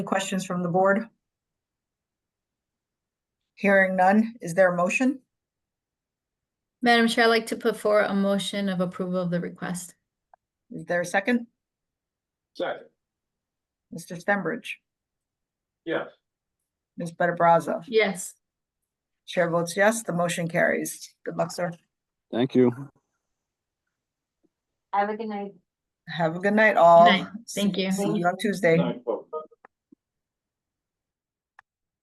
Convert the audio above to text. Questions from the board? Hearing none, is there a motion? Madam Chair, I'd like to put forward a motion of approval of the request. Is there a second? Second, Mr. Stenbridge, yes. Ms. Better Brazza, Yes. chair votes yes, the motion carries. Good luck, sir. Thank you. Have a good night. Have a good night all. night. Thank See- you. See you on Tuesday. Nine,